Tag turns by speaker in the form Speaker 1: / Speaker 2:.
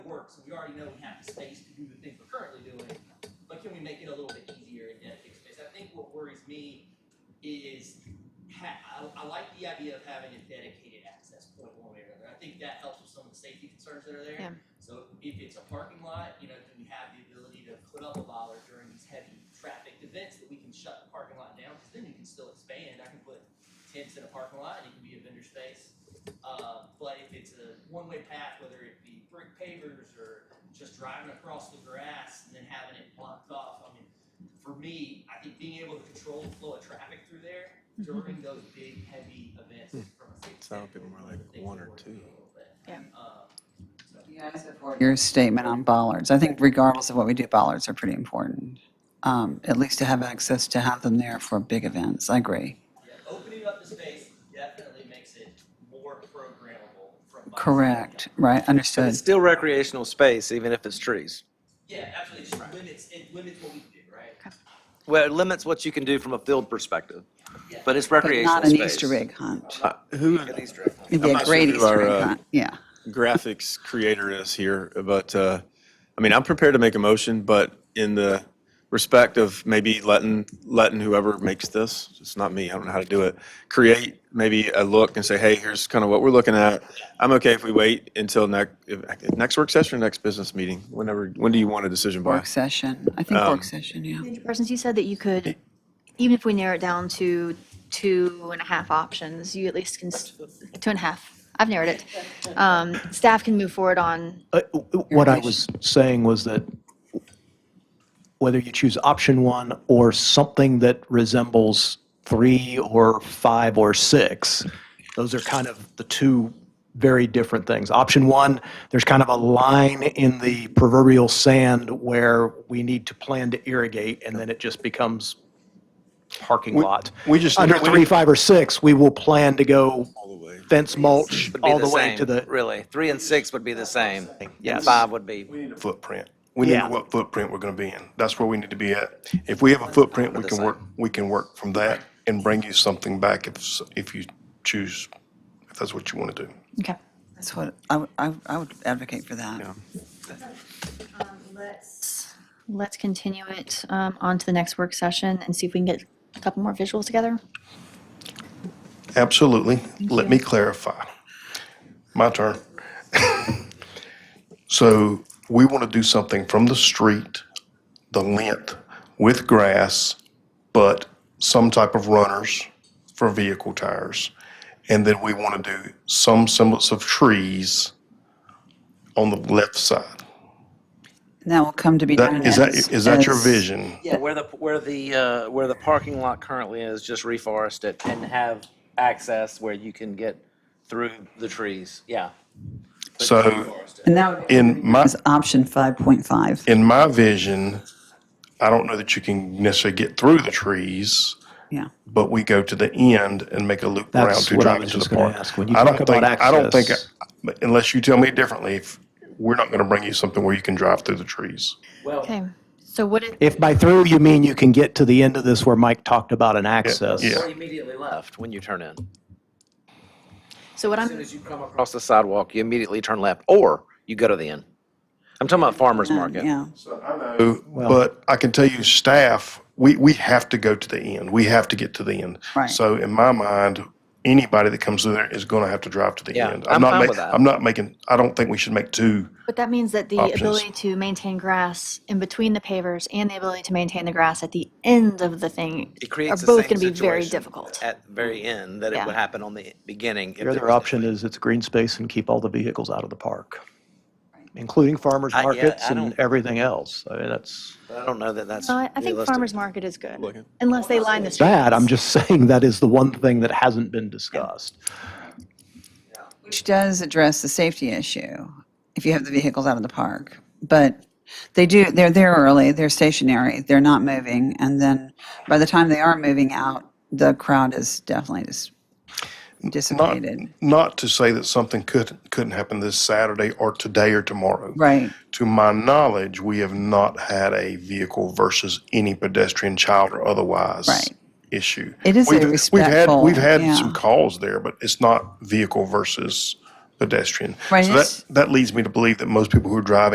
Speaker 1: so we already know we have the space to do the things we're currently doing, but can we make it a little bit easier and dedicate space? I think what worries me is ha- I, I like the idea of having a dedicated access point one way or another. I think that helps with some of the safety concerns that are there.
Speaker 2: Yeah.
Speaker 1: So if it's a parking lot, you know, do we have the ability to put up a bollard during these heavy traffic events that we can shut the parking lot down? Because then you can still expand. I can put tents in a parking lot and it can be a vendor space. Uh, but if it's a one-way path, whether it be brick pavers or just driving across the grass and then having it blocked off, I mean, for me, I think being able to control the flow of traffic through there during those big, heavy events is from a safety
Speaker 3: Sound people
Speaker 1: standpoint, one of
Speaker 3: more
Speaker 1: the
Speaker 3: like
Speaker 1: things
Speaker 3: one
Speaker 1: that
Speaker 3: or
Speaker 1: worries
Speaker 3: two.
Speaker 1: me a little bit. Um, so-
Speaker 4: Yeah, I support your statement on bollards. I think regardless of what we do, bollards are pretty important. Um, At least to have access, to have them there for big events. I agree.
Speaker 1: Yeah, opening up the space definitely makes it more programmable from my.
Speaker 4: Correct,
Speaker 1: standpoint.
Speaker 4: right,
Speaker 5: But
Speaker 4: understood.
Speaker 5: it's still recreational space, even if it's trees.
Speaker 1: Yeah, absolutely, it just limits, it limits what we can do, right?
Speaker 5: Well, it limits what you can do from a field perspective,
Speaker 1: Yeah.
Speaker 5: but it's
Speaker 4: But
Speaker 5: recreational
Speaker 4: not an
Speaker 5: space.
Speaker 4: Easter egg hunt.
Speaker 3: Uh, Who
Speaker 5: An Easter egg.
Speaker 4: It'd be
Speaker 3: I'm
Speaker 4: a
Speaker 3: not
Speaker 4: great
Speaker 3: sure who our,
Speaker 4: Easter egg
Speaker 3: uh,
Speaker 4: hunt, yeah.
Speaker 3: graphics creator is here, but uh, I mean, I'm prepared to make a motion, but in the respect of maybe letting letting whoever makes this, it's not me. I don't know how to do it. Create maybe a look and say, hey, here's kind of what we're looking at. I'm okay if we wait until next next work session, or next business meeting, whenever. When do you want a decision by?
Speaker 4: Work session, I think
Speaker 3: Um,
Speaker 4: work session, yeah.
Speaker 2: Parsons, you said that you could, even if we narrow it down to two and a half options, you at least can, s- two and a half, I've narrowed it. Um, Staff can move forward on,
Speaker 6: Uh, w- w- What I was saying was that whether you choose option one or something that resembles three or five or six, those are kind of the two very different things. Option one, there's kind of a line in the proverbial sand where we need to plan to irrigate, and then it just becomes parking lot.
Speaker 3: we just-
Speaker 6: Under
Speaker 3: we-
Speaker 6: three, five, or six, we will plan to go
Speaker 3: the way.
Speaker 6: fence mulch
Speaker 5: Would be
Speaker 6: all the way
Speaker 5: same,
Speaker 6: to the,
Speaker 5: Really, three and six would be the same. And
Speaker 6: Yes.
Speaker 5: five would be.
Speaker 7: We need a footprint. We need to
Speaker 6: Yeah.
Speaker 7: know what footprint we're gonna be in. That's where we need to be at. If we have a footprint, we can work, we can work from that and bring you something back if, s- if you choose, if that's what you want to do.
Speaker 2: okay.
Speaker 4: That's what, I, would- I would- I would advocate for that.
Speaker 2: Let's, let's continue it um, on to the next work session and see if we can get a couple more visuals together.
Speaker 7: Absolutely. Let me clarify. My turn. So we want to do something from the street, the length, with grass, but some type of runners for vehicle tires. And then we want to do some semblance of trees on the left side.
Speaker 4: And that will come to be known
Speaker 7: That, is that,
Speaker 4: as-
Speaker 7: is that your
Speaker 4: as-
Speaker 7: vision?
Speaker 5: Where the, where the, uh, where the parking lot currently is, just reforest it and have access where you can get through the trees, yeah.
Speaker 7: So
Speaker 4: And that would be
Speaker 7: in my.
Speaker 4: as option 5.5.
Speaker 7: in my vision, I don't know that you can necessarily get through the trees,
Speaker 4: Yeah,
Speaker 7: but we go to the end and make a loop around
Speaker 6: That's
Speaker 7: to
Speaker 6: what I
Speaker 7: drive
Speaker 6: was
Speaker 7: into the
Speaker 6: just gonna
Speaker 7: park.
Speaker 6: ask. When you
Speaker 7: I don't
Speaker 6: talk about
Speaker 7: think- I don't think,
Speaker 6: access-
Speaker 7: but unless you tell me differently, if, we're not gonna bring you something where you can drive through the trees.
Speaker 2: Okay, so what if,
Speaker 6: If by through you mean you can get to the end of this where Mike talked about an access.
Speaker 7: yeah.
Speaker 5: Or immediately left when you turn in.
Speaker 2: so what
Speaker 5: As soon
Speaker 2: I'm,
Speaker 5: as you come across the sidewalk, you immediately turn left, or you go to the end. I'm talking about farmer's market.
Speaker 4: yeah.
Speaker 7: But I can tell you, staff, we, we have to go to the end. We have to get to the end.
Speaker 4: Right.
Speaker 7: So in my mind, anybody that comes through there is gonna have to drive to the
Speaker 5: Yeah,
Speaker 7: end.
Speaker 5: I'm
Speaker 7: not
Speaker 5: fine
Speaker 7: ma-
Speaker 5: with that.
Speaker 7: I'm not making, I don't think we should make two
Speaker 2: but that means that the
Speaker 7: Options.
Speaker 2: ability to maintain grass in between the pavers and the ability to maintain the grass at the end of the thing
Speaker 5: It
Speaker 2: are
Speaker 5: creates the
Speaker 2: both
Speaker 5: same
Speaker 2: going to be very
Speaker 5: situation
Speaker 2: difficult.
Speaker 5: At the very end, that it
Speaker 2: Yeah.
Speaker 5: would happen on the beginning. if
Speaker 6: Your
Speaker 5: there
Speaker 6: other
Speaker 5: was a-
Speaker 6: option is it's green space and keep all the vehicles out of the park, including farmers
Speaker 5: I- yeah,
Speaker 6: markets
Speaker 5: I
Speaker 6: and
Speaker 5: don't-
Speaker 6: everything else. I mean, that's
Speaker 5: I don't know that that's
Speaker 2: No, Uh, I I think
Speaker 5: realistic.
Speaker 2: farmer's market is good, unless they line the streets.
Speaker 6: bad. I'm just saying that is the one thing that hasn't been discussed.
Speaker 4: Which does address the safety issue if you have the vehicles out of the park. But they do, they're there early, they're stationary, they're not moving. And then by the time they are moving out, the crowd is definitely dis-
Speaker 7: Not,
Speaker 4: dissipated.
Speaker 7: not to say that something could, couldn't happen this Saturday or today or tomorrow.
Speaker 4: Right.
Speaker 7: To my knowledge, we have not had a vehicle versus any pedestrian, child, or otherwise
Speaker 4: Right.
Speaker 7: issue.
Speaker 4: It is a
Speaker 7: We've-
Speaker 4: respectful-
Speaker 7: We've had, we've
Speaker 4: yeah.
Speaker 7: had some calls there, but it's not vehicle versus pedestrian.
Speaker 4: Right,
Speaker 7: So
Speaker 4: it's-
Speaker 7: that, that leads me to believe that most people who are driving